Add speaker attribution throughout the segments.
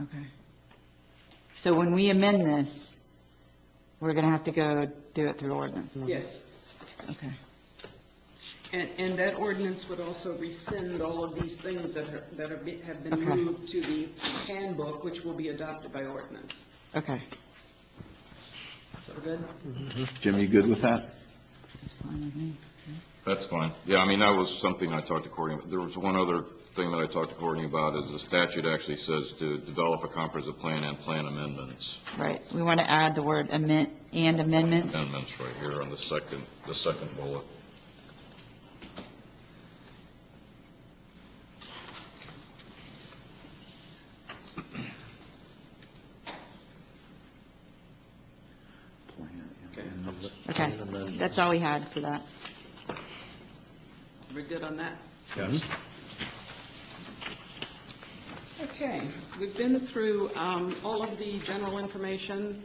Speaker 1: Okay. So when we amend this, we're going to have to go do it through ordinance?
Speaker 2: Yes.
Speaker 1: Okay.
Speaker 2: And, and that ordinance would also rescind all of these things that are, that are, be- have been
Speaker 1: Okay.
Speaker 2: moved to the handbook, which will be adopted by ordinance.
Speaker 1: Okay.
Speaker 2: So we're good?
Speaker 3: Jim, you good with that?
Speaker 4: That's fine. Yeah, I mean, that was something I talked to Courtney, there was one other thing that I talked to Courtney about, is the statute actually says to develop a comprehensive plan and plan amendments.
Speaker 1: Right. We want to add the word amend, and amendments?
Speaker 4: Amendments right here on the second, the second bullet.
Speaker 1: Okay. That's all we had for that.
Speaker 2: We're good on that? Mm-hmm.
Speaker 3: Yes.
Speaker 2: Okay, we've been through um, all of the general information.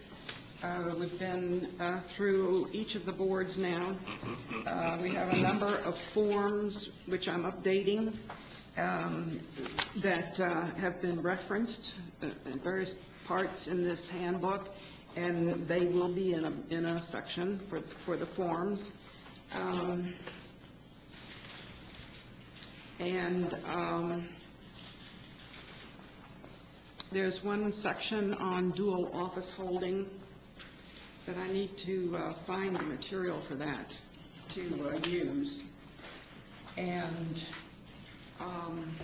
Speaker 2: Uh, We've been uh, through each of the boards now. Uh, We have a number of forms, which I'm updating, um, that uh, have been referenced uh, in various parts in this handbook, and they will be in a, in a section for, for the forms. Um, And um, there's one section on dual office holding that I need to uh, find the material for that to uh, use. And um,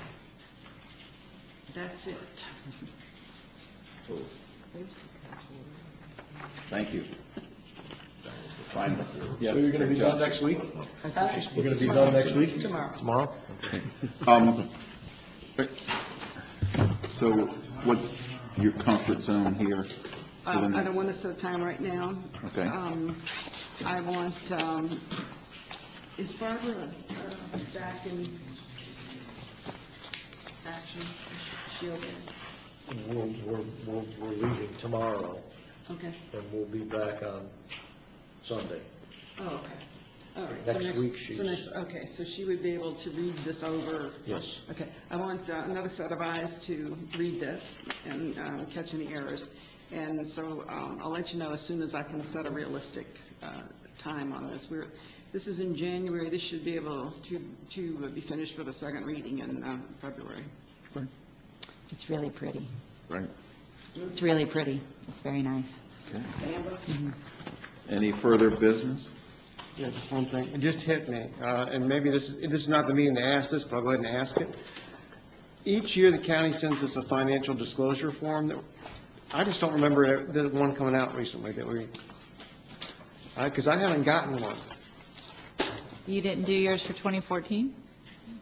Speaker 2: that's it.
Speaker 3: Thank you. Fine.
Speaker 5: So you're gonna be done next week? You're gonna be done next week?
Speaker 2: Tomorrow.
Speaker 5: Tomorrow?
Speaker 3: Um, so what's your comfort zone here?
Speaker 2: I Uh, I don't want to set a time right now.
Speaker 3: Okay.
Speaker 2: Um, I want, um, is Barbara uh, back in action? Is she okay?
Speaker 5: We're, we're, we're we're leaving tomorrow,
Speaker 2: Okay.
Speaker 5: and we'll be back on Sunday.
Speaker 2: Oh, okay. All right. so
Speaker 5: Next week she's-
Speaker 2: So next, okay, so she would be able to read this over?
Speaker 5: Yes.
Speaker 2: Okay, I want uh, another set of eyes to read this and uh, catch any errors. And so um, I'll let you know as soon as I can set a realistic uh, time on this. We're, this is in January, this should be able to, to be finished for the second reading in uh, February.
Speaker 1: It's really pretty.
Speaker 3: Right.
Speaker 1: It's really pretty. It's very nice.
Speaker 3: Okay. Any further business?
Speaker 6: Yeah, just one thing, it just hit me, uh, and maybe this, is- this is not the meeting to ask this, but I'll go ahead and ask it. Each year, the county sends us a financial disclosure form that, I just don't remember it- the one coming out recently that we, because I haven't gotten one,
Speaker 1: You didn't do yours for 2014?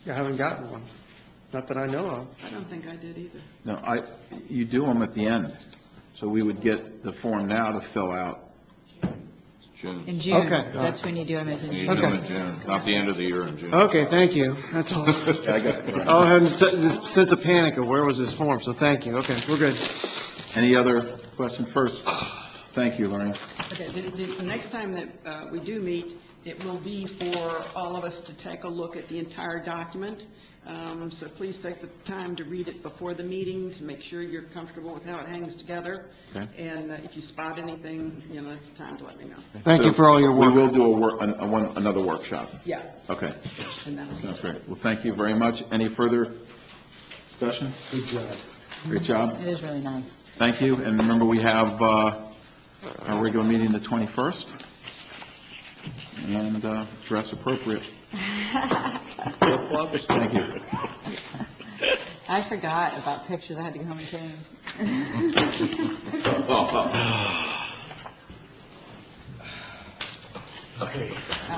Speaker 6: I haven't gotten one, not that I know of.
Speaker 2: I don't think I did either.
Speaker 3: No, I, you do them at the end. So we would get the form now to fill out.
Speaker 4: June,
Speaker 1: In June?
Speaker 6: Okay.
Speaker 1: That's when you do them, is in
Speaker 4: you
Speaker 1: June?
Speaker 4: do them in
Speaker 6: Okay.
Speaker 4: June, not the end of the year in June.
Speaker 6: Okay, thank you, that's all.
Speaker 3: I got-
Speaker 6: Oh, I had a sense of panic of where was this form, so thank you, okay, we're good.
Speaker 3: Any other question first? Thank you, Lorraine.
Speaker 2: Okay, the, the, the next time that uh, we do meet, it will be for all of us to take a look at the entire document. Um, So please take the time to read it before the meeting, to make sure you're comfortable with how it hangs together.
Speaker 3: Okay.
Speaker 2: And uh, if you spot anything, you know, it's time to let me know.
Speaker 6: Thank you for all your work.
Speaker 3: We will do a work, an- a one- another workshop.
Speaker 2: Yeah.
Speaker 3: Okay,
Speaker 2: And that'll be-
Speaker 3: sounds great. Well, thank you very much. Any further discussion?
Speaker 5: Good job.
Speaker 3: Great job.
Speaker 1: It is really nice.
Speaker 3: Thank you. And remember, we have uh, our regular meeting the 21st, and uh, dress appropriate.
Speaker 5: Flip-flops?
Speaker 3: Thank you.
Speaker 1: I forgot about pictures. I had to go home and change.
Speaker 4: Oh,
Speaker 5: Okay.